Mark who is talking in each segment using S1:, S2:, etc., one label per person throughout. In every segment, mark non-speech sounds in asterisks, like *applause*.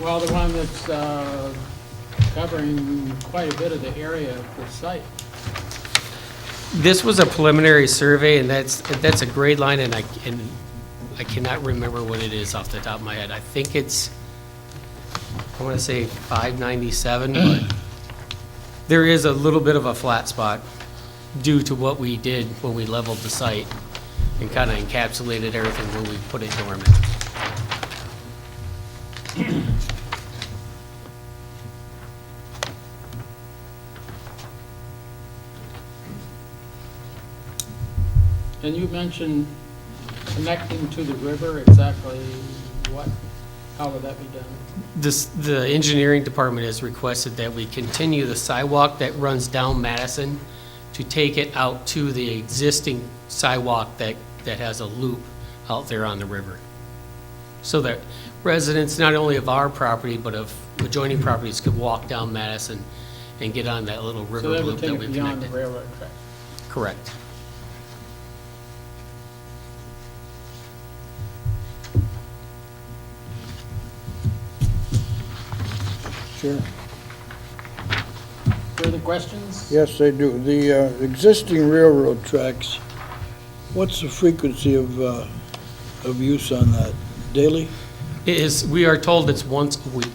S1: Well, the one that's uh, covering quite a bit of the area of the site.
S2: This was a preliminary survey, and that's, that's a grade line, and I, and I cannot remember what it is off the top of my head. I think it's, I want to say 597, but there is a little bit of a flat spot due to what we did when we leveled the site and kind of encapsulated everything when we put it dormant.
S1: And you mentioned connecting to the river, exactly what, how would that be done?
S2: This, the engineering department has requested that we continue the sidewalk that runs down Madison to take it out to the existing sidewalk that, that has a loop out there on the river. So that residents, not only of our property, but of adjoining properties could walk down Madison and get on that little river
S1: So that would
S2: loop that
S1: take it
S2: we've
S1: beyond the
S2: connected.
S1: railroad track.
S2: Correct.
S3: Sure.
S1: Further questions?
S3: Yes, they do. The uh, existing railroad tracks, what's the frequency of, uh, of use on that? Daily?
S2: It is, we are told it's once a week.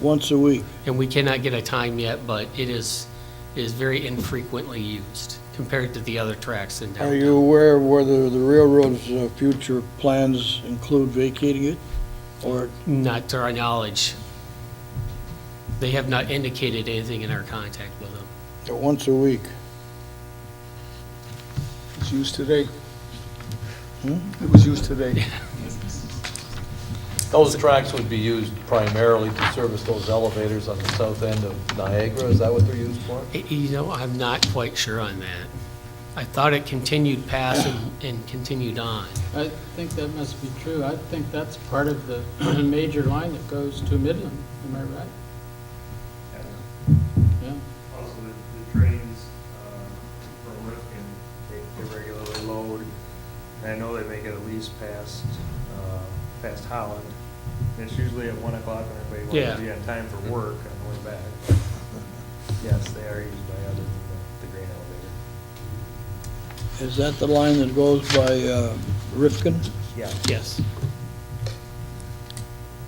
S3: Once a week?
S2: and we cannot get a time yet, but it is, is very infrequently used compared to the other tracks in
S3: Are
S2: downtown.
S3: you aware of whether the railroad's uh, future plans include vacating it? Or,
S2: Not to our knowledge. They have not indicated anything in our contact with them.
S3: uh, once a week?
S4: It's used today.
S3: Hmm?
S4: It was used today.
S5: Those tracks would be used primarily to service those elevators on the south end of Niagara, is that what they're used for?
S2: I- You know, I'm not quite sure on that. I thought it continued past and, and continued on.
S1: I think that must be true. I think that's part of the major line that goes to Midland, am I right? Yeah.
S6: Also, the, the trains, uh, from Rifkin, they, they regularly load. And I know they make it at least past, uh, past Holland. And it's usually at one o'clock when everybody
S2: Yeah.
S6: wants to be on time for work on the way back. But Yes, they are used by others, than the, the grain elevator.
S3: Is that the line that goes by uh, Rifkin?
S6: Yeah.
S2: Yes.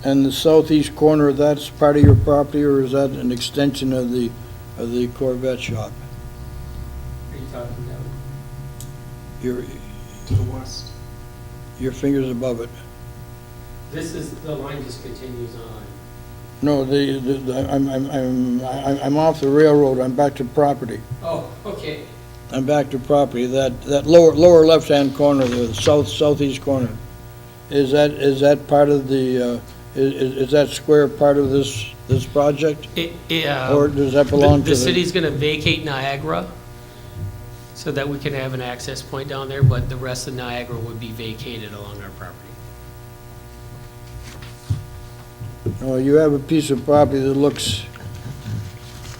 S3: And the southeast corner, that's part of your property, or is that an extension of the, of the Corvette shop?
S7: Are you talking down
S3: Your,
S7: to the west?
S3: your fingers above it?
S2: This is, the line just continues on.
S3: No, the, the- the, I'm, I'm, I'm, I- I'm off the railroad, I'm back to property.
S2: Oh, okay.
S3: I'm back to property, that, that lower, lower left-hand corner, the south, southeast corner. Is that, is that part of the, uh, i- i- is that square part of this, this project?
S2: It, it, uh,
S3: Or does that
S2: The-
S3: belong to
S2: The
S3: the,
S2: city's going to vacate Niagara so that we can have an access point down there, but the rest of Niagara would be vacated along our property.
S3: no, you have a piece of property that looks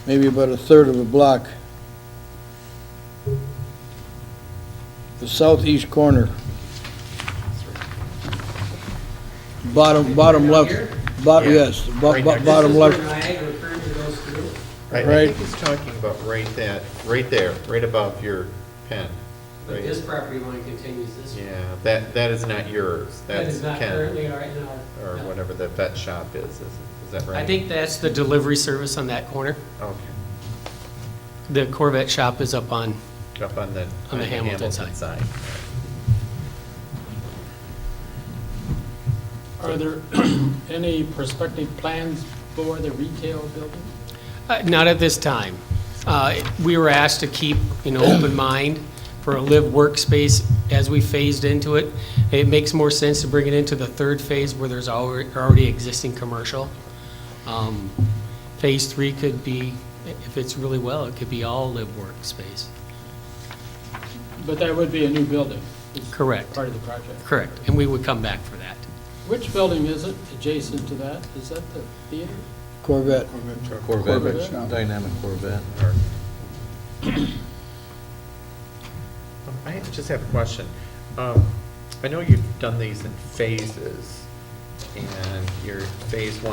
S3: maybe about a third of a block. The southeast corner. Bottom, bottom
S2: Down
S3: left,
S2: here?
S3: bottom, yes, bo- bo- bottom left.
S2: Niagara currently goes through.
S8: I I
S3: Right.
S8: think he's talking about right that, right there, right above your pen.
S2: But
S8: Right.
S2: this property line continues this way.
S8: Yeah, that, that is not yours.
S2: That
S8: That's
S2: is not
S8: Ken,
S2: currently our, in our.
S8: or
S2: no.
S8: whatever the vet shop is, is it- is that right? Oh,
S2: I think that's the delivery service on that corner.
S8: Okay,
S2: The Corvette shop is up on,
S8: up on the.
S2: On the Hamilton side.
S1: Are there *clears throat* any prospective plans for the retail building?
S2: uh, not at this time. Uh, We were asked to keep, you know, open mind for a live workspace as we phased into it. It makes more sense to bring it into the third phase where there's alre- already existing commercial. Um, Phase three could be, if it's really well, it could be all live workspace.
S1: But that would be a new building. is
S2: Correct.
S1: Part of the project.
S2: Correct, and we would come back for that.
S1: Which building is it adjacent to that? Is that the theater?
S3: Corvette.
S1: Corvette
S5: Corvette,
S1: shop.
S5: dynamic Corvette, or
S8: *coughs* Um, I just have a question. Um, I know you've done these in phases, and your phase one.